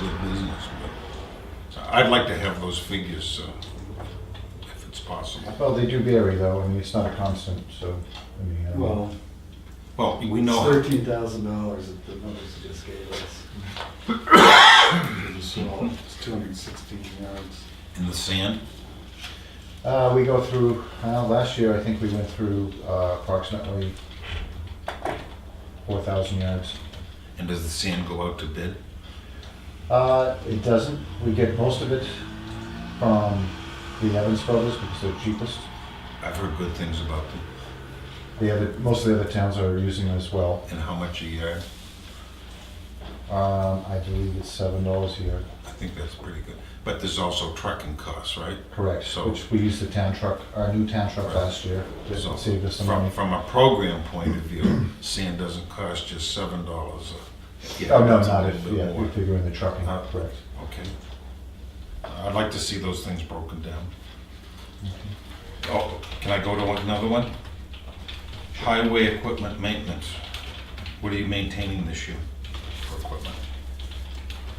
good business, but I'd like to have those figures, uh, if it's possible. Well, they do vary though, I mean, it's not a constant, so, I mean, uh, I don't know. Well, Well, we it's know, thirteen thousand dollars that the numbers just gave us. So it's two hundred and sixteen yards. in the sand, Uh, we go through, uh, last year, I think we went through uh, approximately four thousand yards. and does the sand go out to bid? Uh, it doesn't, we get most of it from the Evans Brothers because they're cheapest. I've heard good things about them, The other, most of the other towns are using it as well. and how much a yard? Um, I believe it's seven dollars a yard, I think that's pretty good. But there's also trucking costs, right? correct, So- which we used the town truck, our new town truck Right. last year, that So saved us some from- money. From a program point of view, sand doesn't cost just seven dollars. Oh, no, not if, yeah, we're figuring the trucking, Uh, correct. Okay. Uh, I'd like to see those things broken down. Oh, can I go to one- another one? Highway equipment maintenance. What are you maintaining this year for equipment?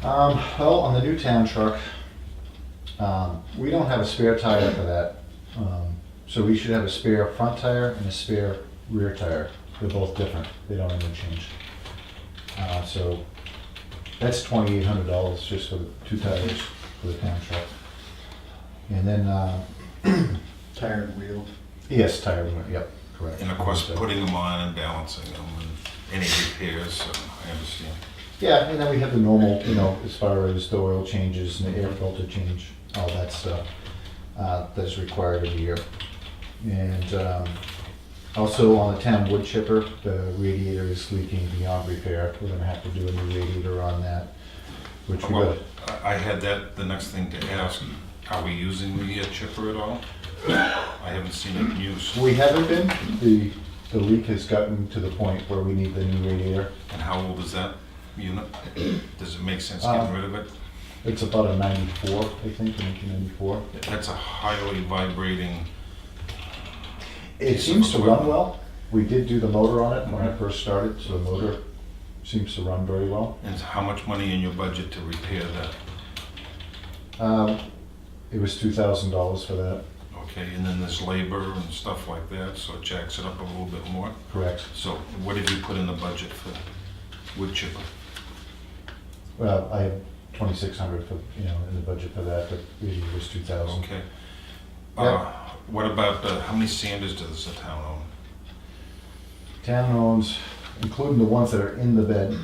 Um, well, on the new town truck, um, we don't have a spare tire for that. Um, so we should have a spare front tire and a spare rear tire. They're both different. They don't interchange. Uh, so that's twenty-eight hundred dollars just for the two tires for the town truck. And then, uh, Tire and wheel. yes, tire, yep, correct. And of course, putting them on and balancing them and any repairs, so I understand. Yeah, and then we have the normal, you know, as far as the oil changes and the air filter change, all that stuff uh, that's required every year. And um, also on the town wood chipper, the radiator is leaking beyond repair. We're gonna have to do a new radiator on that, which we Well, got. I I had that, the next thing to ask, are we using the uh, chipper at all? I haven't seen it in use. We haven't been, the, the leak has gotten to the point where we need the new radiator. And how old is that unit? Does it make sense getting rid of it? It's about a ninety-four, I think, nineteen ninety-four. That's a highly vibrating, It seems to run well. We did do the motor on it when I first started, so the motor seems to run very well. and how much money in your budget to repair that? Um, It was two thousand dollars for that, Okay, and then there's labor and stuff like that, so it jacks it up a little bit more. correct? So what have you put in the budget for wood chipper? Well, I have twenty-six hundred for, you know, in the budget for that, but it was two thousand. Okay. Uh, What about, uh, how many sanders does the town own? Town owns, including the ones that are in the bed,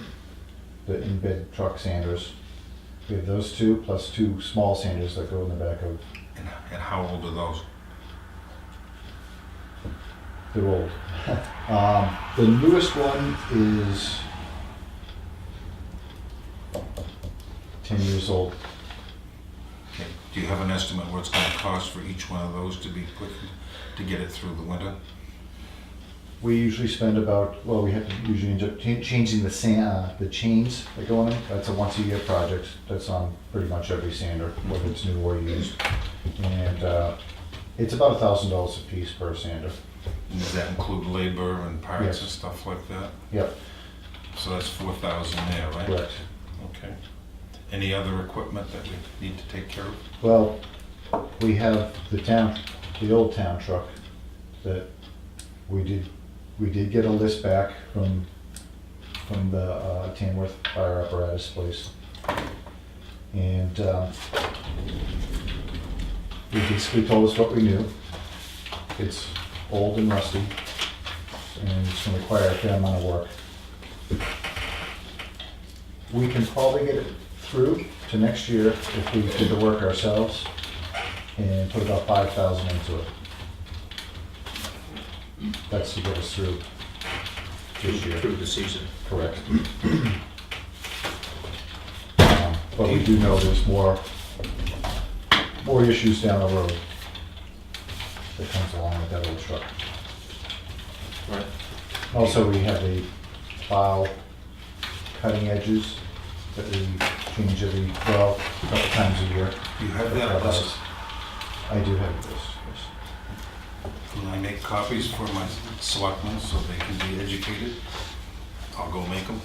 the in-bed truck sanders. We have those two, plus two small sanders that go in the back of, And and how old are those? they're old. Um, The newest one is ten years old. Okay. Do you have an estimate what it's gonna cost for each one of those to be put, to get it through the winter? We usually spend about, well, we have to usually end up cha- changing the sand, uh, the chains that go on it. That's a once a year project. That's on pretty much every sander, whether it's new or used. And, uh, it's about a thousand dollars a piece per sander. And Does that include labor and parts and Yes. stuff like that? Yep, So that's four thousand there, right? correct. Okay. Any other equipment that we need to take care of? Well, we have the town, the old town truck that we did, we did get a list back from, from the uh, Tamworth Fire Apparatus Place. And um, they basically told us what we knew. It's old and rusty, and it's gonna require a fair amount of work. We can probably get it through to next year if we did the work ourselves and put about five thousand into it. That's to get us through this year. through the season. Correct. Um, But we do know there's more, more issues down the road that comes along with that old truck. Right. Also, we have a file cutting edges that we change every, well, a couple times a year. You have that list. I do have this, yes. Can I make copies for my selectmen so they can be educated? I'll go make them.